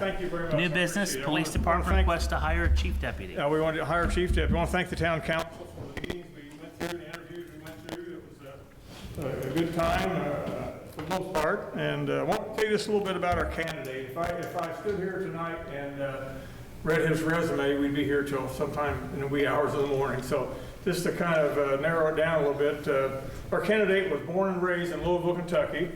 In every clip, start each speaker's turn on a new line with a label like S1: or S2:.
S1: Thank you very much. I
S2: New business,
S1: appreciate it. I
S2: police
S1: wanna-
S2: department
S1: wanna
S2: requests to hire a chief deputy.
S1: thank- uh, We want to hire a chief deputy. We want to thank the town council for the meetings we went through, the interviews we went through. It was uh, a a good time uh, for the most part. And uh, I want to tell you just a little bit about our candidate. If I, if I stood here tonight and uh, read his resume, we'd be here till sometime in the wee hours of the morning. So just to kind of uh, narrow it down a little bit, uh, our candidate was born and raised in Louisville, Kentucky.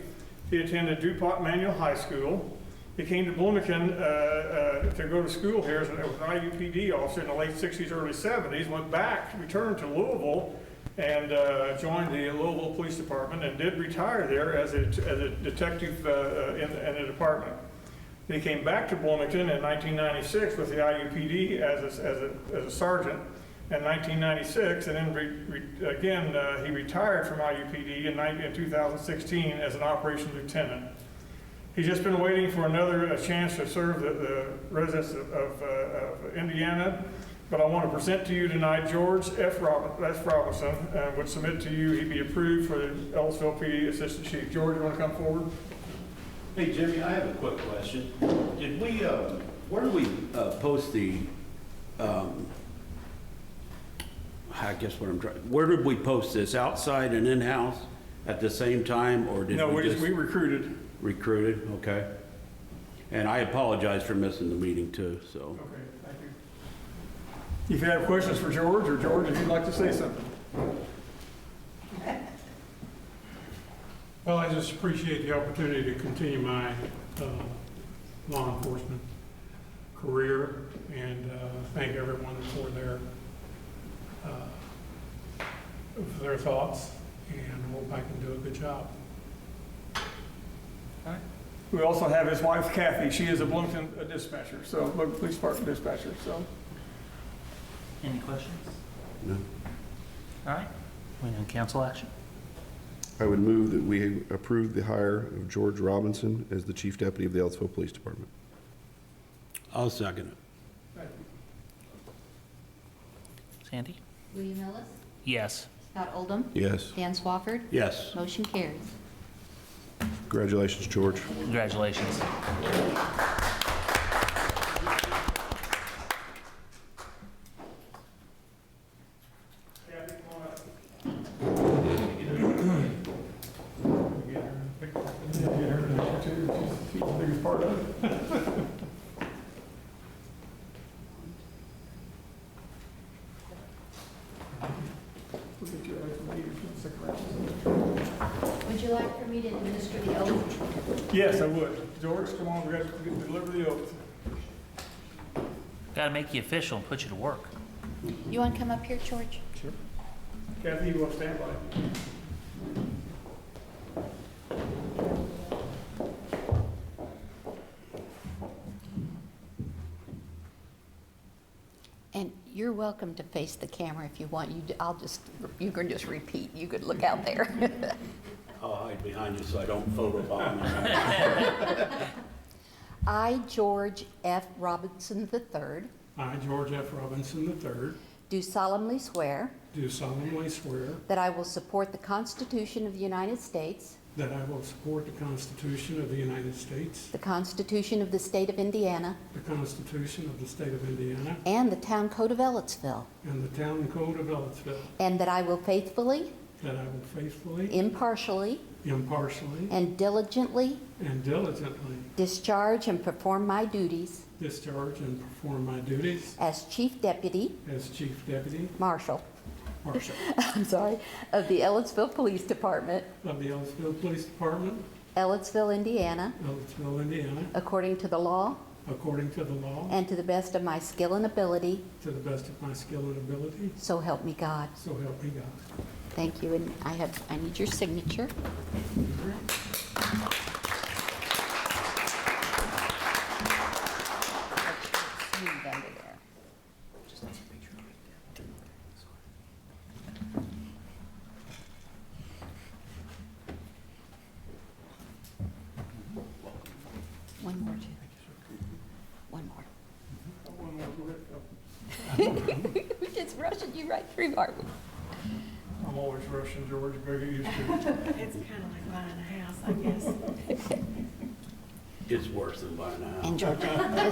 S1: He attended DuPont Manual High School. He came to Bloomington uh, uh, to go to school here as an as an IUPD officer in the late 60s, early 70s, went back, returned to Louisville, and uh, joined the Louisville Police Department, and did retire there as a as a detective uh, uh, in in the department. He came back to Bloomington in 1996 with the IUPD as a, as a, as a sergeant in 1996, and then re, re, again uh, he retired from IUPD in, 19 in 2016 as an operations lieutenant. He's just been waiting for another uh, chance to serve the, the residents of, of, uh, of Indiana. But I want to present to you tonight George F. Rob- F. Robinson, uh, would submit to you, he'd be approved for the Ellisville PD Assistant Chief. George, you want to come forward?
S3: Hey Jimmy, I have a quick question. Did we, uh, where do we uh, post the, um, I guess what I'm trying, where did we post this? Outside and in-house at the same time, or did
S1: No,
S3: we
S1: we just,
S3: just
S1: we recruited.
S3: recruited? Okay. And I apologize for missing the meeting too, so.
S1: Okay, thank you. If you have questions for George, or George, if you'd like to say something.
S4: Well, I just appreciate the opportunity to continue my uh, law enforcement career and uh, thank everyone for their, uh, for their thoughts and hope I can do a good job.
S1: We also have his wife Kathy, she is a Bloomington dispatcher, so, Bloomington police department dispatcher, so.
S2: Any questions?
S5: No.
S2: All right, we on council action.
S5: I would move that we approve the hire of George Robinson as the Chief Deputy of the Ellisville Police Department.
S3: I'll second it.
S2: Sandy?
S6: William Ellis,
S2: Yes.
S6: Scott Oldham,
S5: Yes.
S6: Dan Swafford,
S3: Yes.
S6: motion carries.
S5: Congratulations, George.
S2: Congratulations.
S1: Kathy, come on up.
S6: Would you like for me to administer the oath?
S1: Yes, I would. George, come on, we got to deliver the oath.
S2: Got to make you official and put you to work.
S6: You want to come up here, George?
S1: Kathy, you will stand by.
S6: And you're welcome to face the camera if you want. You, d- I'll just, you can just repeat. You could look out there.
S3: I'll hide behind you so I don't photobomb you.
S6: I, George F. Robinson III,
S4: I, George F. Robinson III,
S6: do solemnly swear
S4: do solemnly swear
S6: that I will support the Constitution of the United States,
S4: that I will support the Constitution of the United States,
S6: the Constitution of the State of Indiana,
S4: the Constitution of the State of Indiana,
S6: and the Town Code of Ellisville,
S4: and the Town Code of Ellisville,
S6: and that I will faithfully,
S4: that I will faithfully,
S6: impartially,
S4: impartially,
S6: and diligently
S4: and diligently
S6: Discharge and perform my duties
S4: discharge and perform my duties
S6: as Chief Deputy
S4: as Chief Deputy
S6: Marshal,
S4: Marshal
S6: I'm sorry, of the Ellisville Police Department,
S4: of the Ellisville Police Department,
S6: Ellisville, Indiana,
S4: Ellisville, Indiana,
S6: according to the law
S4: according to the law,
S6: and to the best of my skill and ability,
S4: to the best of my skill and ability,
S6: so help me God.
S4: so help me God.
S6: Thank you, and I have, I need your signature. Smooth under there. One more, Jim. One more. We're just rushing you right through, aren't we?
S1: I'm always rushing, George, better get used to it.
S7: It's kind of like buying a house, I guess.
S3: Is
S8: It's worse than by now.
S3: And Georgia,